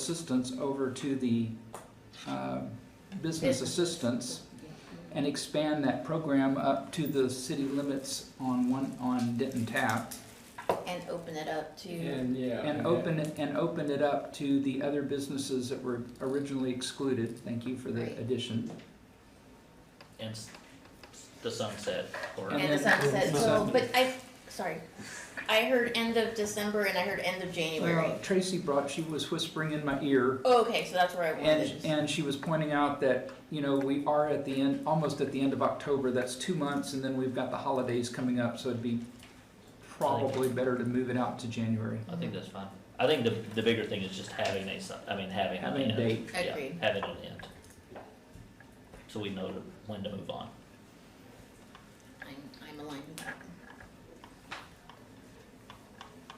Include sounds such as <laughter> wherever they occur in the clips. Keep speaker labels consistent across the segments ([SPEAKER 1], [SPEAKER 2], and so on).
[SPEAKER 1] assistance over to the uh, business
[SPEAKER 2] Business.
[SPEAKER 1] assistance and expand that program up to the city limits on one, on Denton Tap.
[SPEAKER 2] And open it up to,
[SPEAKER 3] And, yeah.
[SPEAKER 1] And open, it- and open it up to the other businesses that were originally excluded. Thank you for the
[SPEAKER 2] Right.
[SPEAKER 1] addition.
[SPEAKER 4] and s- the sunset or
[SPEAKER 1] And
[SPEAKER 2] and the
[SPEAKER 1] then-
[SPEAKER 2] sunset,
[SPEAKER 1] Yeah.
[SPEAKER 2] so, but I, sorry. I heard end of December and I heard end of January.
[SPEAKER 1] Well, Uh, Tracy brought, she was whispering in my ear,
[SPEAKER 2] Oh, Okay, so that's where I wanted
[SPEAKER 1] and,
[SPEAKER 2] it.
[SPEAKER 1] and she was pointing out that, you know, we are at the end, almost at the end of October, that's two months, and then we've got the holidays coming up, so it'd be probably better to move it out to January.
[SPEAKER 4] I think that's fine. I think the the bigger thing is just having a sun, I mean having an
[SPEAKER 1] Having a
[SPEAKER 4] end.
[SPEAKER 1] date.
[SPEAKER 4] Yeah,
[SPEAKER 2] Agreed.
[SPEAKER 4] having an end. So we know to- when to move on.
[SPEAKER 2] I'm, I'm aligned with that.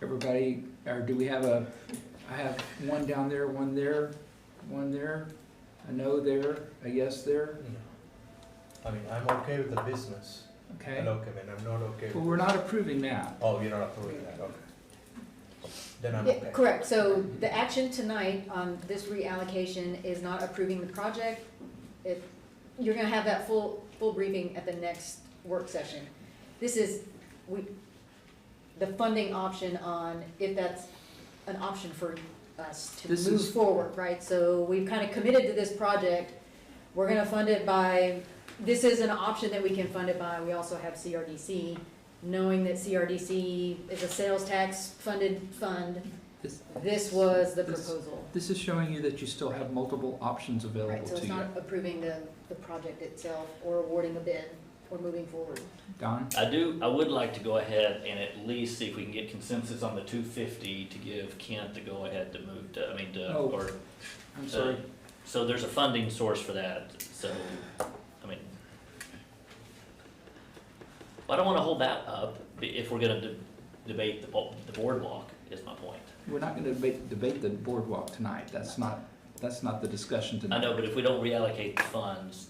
[SPEAKER 1] Everybody, or do we have a, I have one down there, one there, one there, a no there, a yes there,
[SPEAKER 5] I mean, I'm okay with the business.
[SPEAKER 1] okay?
[SPEAKER 5] And okay, man, I'm not okay
[SPEAKER 1] Well,
[SPEAKER 5] with,
[SPEAKER 1] we're not approving that.
[SPEAKER 5] oh, you're not approving that, okay. Then I'm
[SPEAKER 6] Yeah,
[SPEAKER 5] okay.
[SPEAKER 6] Correct, so the action tonight on this reallocation is not approving the project. If, you're gonna have that full, full briefing at the next work session. This is, we, the funding option on, if that's an option for us to
[SPEAKER 1] This
[SPEAKER 6] move
[SPEAKER 1] is-
[SPEAKER 6] forward, right? So we've kind of committed to this project, we're gonna fund it by, this is an option that we can fund it by, we also have CRDC. Knowing that CRDC is a sales tax funded fund,
[SPEAKER 1] This,
[SPEAKER 6] this was the
[SPEAKER 1] This-
[SPEAKER 6] proposal,
[SPEAKER 1] this is showing you that you still have multiple options
[SPEAKER 6] right, so
[SPEAKER 1] available to
[SPEAKER 6] it's
[SPEAKER 1] you.
[SPEAKER 6] not approving the, the project itself or awarding a bid or moving forward.
[SPEAKER 1] Don?
[SPEAKER 4] I do, I would like to go ahead and at least see if we can get consensus on the two fifty to give Kent the go-ahead to move to, I mean, to,
[SPEAKER 1] Oh,
[SPEAKER 4] or.
[SPEAKER 1] I'm
[SPEAKER 4] uh,
[SPEAKER 1] sorry.
[SPEAKER 4] So there's a funding source for that, so, I mean. I don't wanna hold that up i- if we're gonna de- debate the bo- the boardwalk, is my point.
[SPEAKER 1] We're not gonna debate, debate the boardwalk tonight, that's not, that's not the discussion
[SPEAKER 4] I
[SPEAKER 1] tonight.
[SPEAKER 4] know, but if we don't reallocate the funds,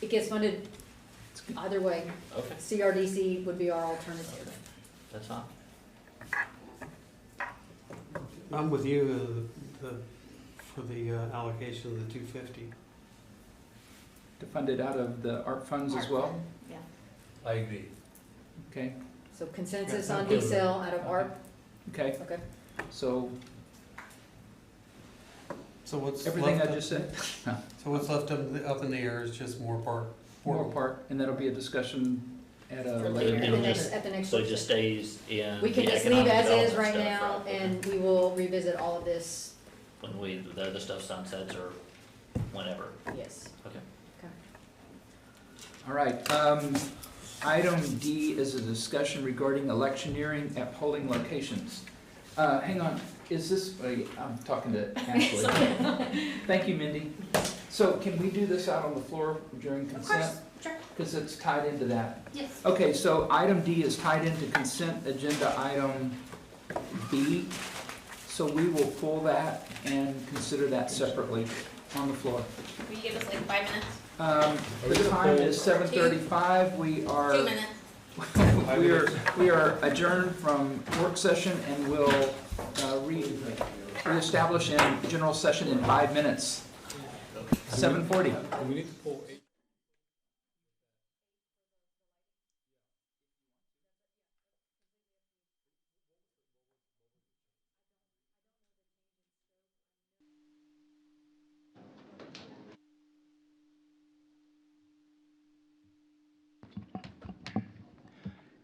[SPEAKER 6] It gets funded either way,
[SPEAKER 4] okay,
[SPEAKER 6] CRDC would be our alternative.
[SPEAKER 4] that's fine.
[SPEAKER 7] I'm with you, uh, the, for the uh, allocation of the two fifty.
[SPEAKER 1] To fund it out of the art funds as
[SPEAKER 2] Art
[SPEAKER 1] well,
[SPEAKER 2] fund, Yeah.
[SPEAKER 5] I agree.
[SPEAKER 1] okay,
[SPEAKER 6] So consensus on
[SPEAKER 7] Yeah.
[SPEAKER 6] D-Cell out of ARP,
[SPEAKER 1] okay,
[SPEAKER 6] okay,
[SPEAKER 1] so
[SPEAKER 7] So what's left?
[SPEAKER 1] everything I
[SPEAKER 7] up-
[SPEAKER 1] just said,
[SPEAKER 7] So what's left up, up in the air is just more part,
[SPEAKER 1] Moral Park, and that'll be a discussion at a
[SPEAKER 2] For
[SPEAKER 1] later
[SPEAKER 2] later.
[SPEAKER 6] at
[SPEAKER 1] date.
[SPEAKER 6] the
[SPEAKER 4] Yeah.
[SPEAKER 6] next, at the next.
[SPEAKER 4] So it just stays in
[SPEAKER 6] We
[SPEAKER 4] the
[SPEAKER 6] can just
[SPEAKER 4] economic
[SPEAKER 6] leave as
[SPEAKER 4] development
[SPEAKER 6] is
[SPEAKER 4] stuff.
[SPEAKER 6] right now,
[SPEAKER 4] right?
[SPEAKER 6] and we will revisit all of this,
[SPEAKER 4] When we, the other stuff sunsets or whenever,
[SPEAKER 6] yes.
[SPEAKER 4] okay.
[SPEAKER 1] All right, um, item D is a discussion regarding electioneering at polling locations. Uh, hang on, is this, wait, I'm talking to
[SPEAKER 2] <laughs>
[SPEAKER 1] Ashley. Thank you, Mindy. So can we do this out on the floor during
[SPEAKER 2] Of
[SPEAKER 1] consent?
[SPEAKER 2] course, sure,
[SPEAKER 1] Because it's tied into that.
[SPEAKER 2] yes.
[SPEAKER 1] Okay, so item D is tied into consent agenda item B. So we will pull that and consider that separately on the floor.
[SPEAKER 2] Will you give us like five minutes,
[SPEAKER 1] Um, The time is seven thirty-five. We are,
[SPEAKER 2] two minutes?
[SPEAKER 1] we are, we are adjourned from work session and will uh, re- reestablish in general session in five minutes. Seven forty.
[SPEAKER 3] We need to pull eight.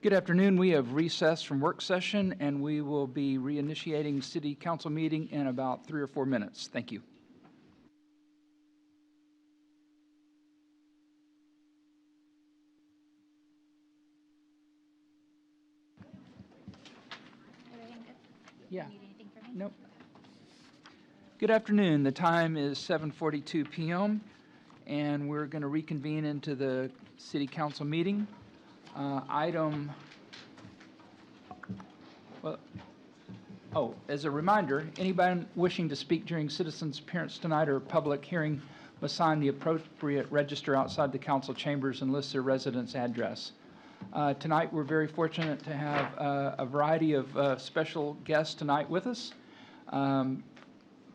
[SPEAKER 1] Good afternoon. We have recessed from work session, and we will be reinitiating city council meeting in about three or four minutes. Thank you. Yeah. Nope. Good afternoon. The time is 7:42 PM, and we're going to reconvene into the city council meeting. Uh, Item, well, oh, as a reminder, anybody wishing to speak during citizens' appearance tonight or public hearing must sign the appropriate register outside the council chambers and list their residence address. Uh, Tonight, we're very fortunate to have uh, a variety of uh, special guests tonight with us. Um,